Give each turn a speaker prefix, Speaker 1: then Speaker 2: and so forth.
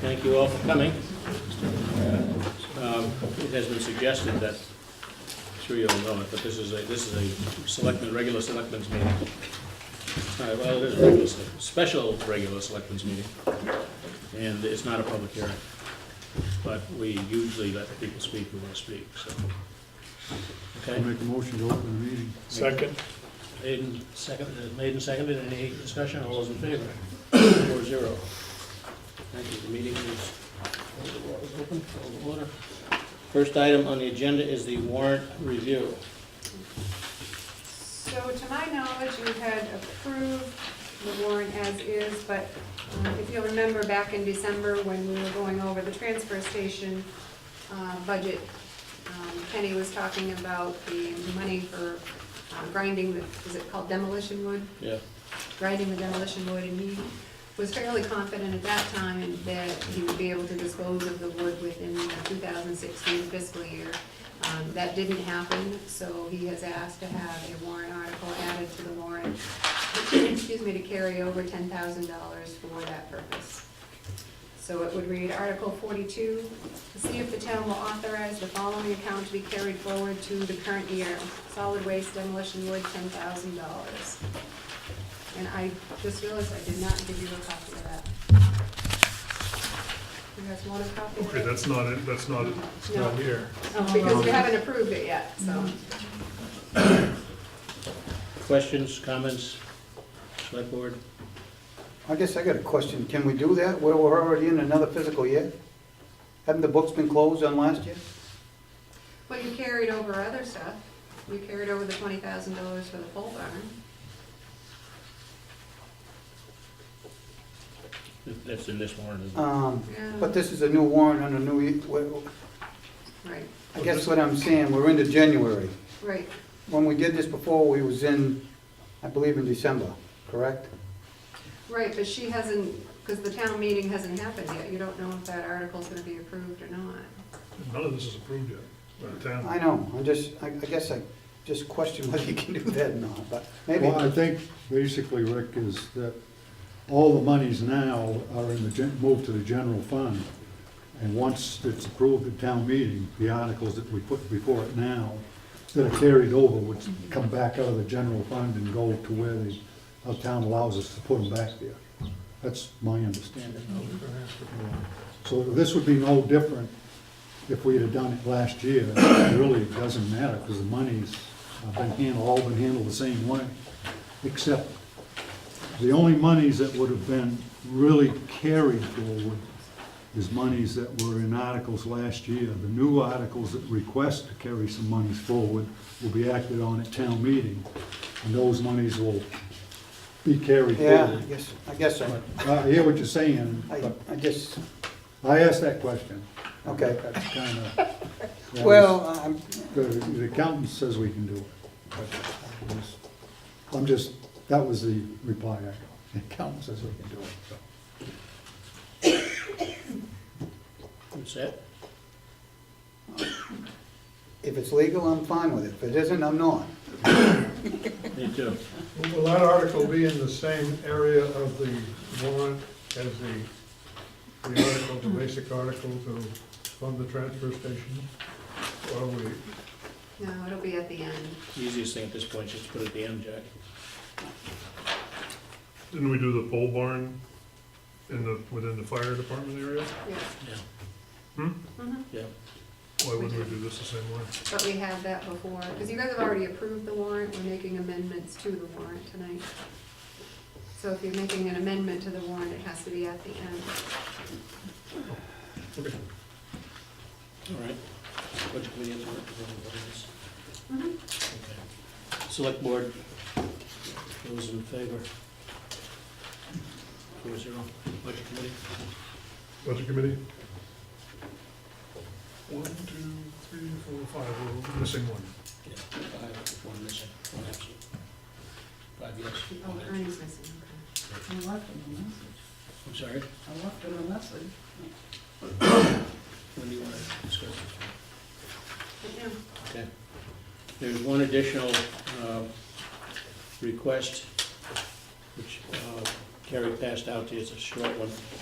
Speaker 1: Thank you all for coming. Um, It has been suggested that, I'm sure you all know it, but this is a, this is a selectmen, regular selectmen's meeting. It's not- Well, it is regular, select- special regular selectmen's meeting, and it's not a public hearing. But we usually let people speak who want to speak, so.
Speaker 2: I'll
Speaker 1: Okay,
Speaker 2: make a motion to open the meeting.
Speaker 3: Second.
Speaker 1: made and seconded, made and seconded, any discussion, all those in favor? Four zero. Thank you, the meeting is, is open, call to order. First item on the agenda is the warrant review.
Speaker 4: So to my knowledge, you had approved the warrant as is, but uh, if you'll remember back in December when we were going over the transfer station uh, budget, um, Kenny was talking about the money for uh, grinding, the is it called demolition wood?
Speaker 1: Yeah,
Speaker 4: grinding the demolition wood, and he was fairly confident at that time that he would be able to dispose of the wood within the 2016 fiscal year. Um, That didn't happen, so he has asked to have a warrant article added to the warrant, excuse me, to carry over $10,000 for that purpose. So it would read Article 42, to see if the town will authorize the following account to be carried forward to the current year. Solid waste demolition wood, $10,000. And I just realized I did not give you a copy of that. You guys want a copy of
Speaker 3: Okay,
Speaker 4: it?
Speaker 3: that's not it, that's not it, it's not
Speaker 4: No.
Speaker 3: here.
Speaker 4: Oh, Because we haven't approved it yet, so.
Speaker 1: questions, comments, select board?
Speaker 5: I guess I got a question. Can we do that? We're, we're already in another fiscal year? Haven't the books been closed on last year?
Speaker 4: But you carried over other stuff. You carried over the twenty thousand dollars for the pole barn.
Speaker 1: That's in this warrant, isn't it?
Speaker 5: Um,
Speaker 4: Yeah.
Speaker 5: but this is a new warrant on a new, ye- well,
Speaker 4: Right,
Speaker 5: I guess what I'm saying, we're into January.
Speaker 4: right.
Speaker 5: When we did this before, we was in, I believe in December, correct?
Speaker 4: Right, but she hasn't, because the town meeting hasn't happened yet. You don't know if that article's gonna be approved or not.
Speaker 3: None of this is approved yet by the town.
Speaker 5: I know, I just, I, I guess I just question whether you can do that or not, but maybe.
Speaker 2: Well, I think basically, Rick, is that all the monies now are in the, gen- moved to the general fund. And once it's approved at town meeting, the articles that we put before it now, that are carried over, would come back out of the general fund and go to where the, our town allows us to put them back there. That's my understanding. So this would be no different if we had done it last year. It Really, it doesn't matter, because the money's uh, been handled, all been handled the same way, except the only monies that would have been really carried forward is monies that were in articles last year. The new articles that request to carry some monies forward will be acted on at town meeting, and those monies will be carried
Speaker 5: Yeah,
Speaker 2: forward. uh,
Speaker 5: I guess, I guess so.
Speaker 2: I hear what you're saying,
Speaker 5: I,
Speaker 2: but
Speaker 5: I just,
Speaker 2: I asked that question.
Speaker 5: Okay.
Speaker 2: That's kind of.
Speaker 5: well, I'm,
Speaker 2: The the accountant says we can do it. but I'm just- I'm just, that was the reply I got. The accountant says we can do it, so.
Speaker 1: That's it?
Speaker 5: if it's legal, I'm fine with it. If it isn't, I'm not.
Speaker 1: Me too.
Speaker 6: Will that article be in the same area of the warrant as the, the article, the basic article to fund the transfer station? Or we,
Speaker 4: No, it'll be at the end.
Speaker 1: The Easiest thing at this point is just to put it at the end, Jack.
Speaker 3: Didn't we do the pole barn in the, within the fire department area?
Speaker 4: Yes.
Speaker 1: Yeah.
Speaker 3: Hmm?
Speaker 4: Mhm.
Speaker 1: Yeah.
Speaker 3: Why wouldn't we do this the same way?
Speaker 4: But we had that before, because you guys have already approved the warrant, we're making amendments to the warrant tonight. So if you're making an amendment to the warrant, it has to be at the end.
Speaker 1: All right. Budget committee has worked with all of this. Okay. Select board, those in favor? Four zero. Budget committee?
Speaker 3: Budget committee? One, two, three, four, five, we're missing one.
Speaker 1: Yeah, five, one missing, one absent. Five yes,
Speaker 4: Oh,
Speaker 1: one absent.
Speaker 4: Ernie's missing, okay.
Speaker 7: I left him a message.
Speaker 1: I'm sorry,
Speaker 7: I left him a message.
Speaker 1: when do you want to discuss this?
Speaker 4: But yeah.
Speaker 1: Okay. There's one additional um, uh, request, which uh, Carrie passed out to you, it's a short one.